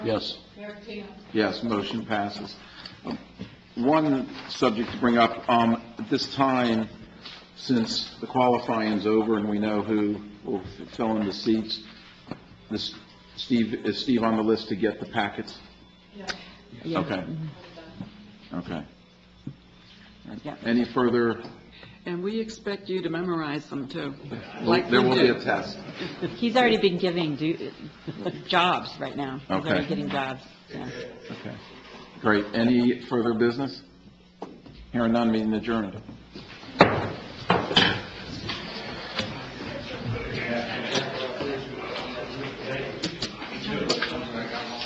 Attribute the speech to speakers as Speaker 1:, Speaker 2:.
Speaker 1: Yes.
Speaker 2: Mayor Patino.
Speaker 3: Yes, motion passes. Um, One subject to bring up, um, at this time, since the qualifying's over and we know who will fill in the seats, this, Steve, is Steve on the list to get the packets?
Speaker 2: Yeah.
Speaker 3: Okay, okay.
Speaker 4: Yeah.
Speaker 3: Any further?
Speaker 4: And we expect you to memorize them, too. like
Speaker 3: There
Speaker 4: we
Speaker 3: will be
Speaker 4: do.
Speaker 3: a test.
Speaker 5: He's already been giving du- jobs right now. He's already
Speaker 3: Okay.
Speaker 5: getting jobs, yeah.
Speaker 3: Okay, great. Any further business? Hearing none, meeting adjourned.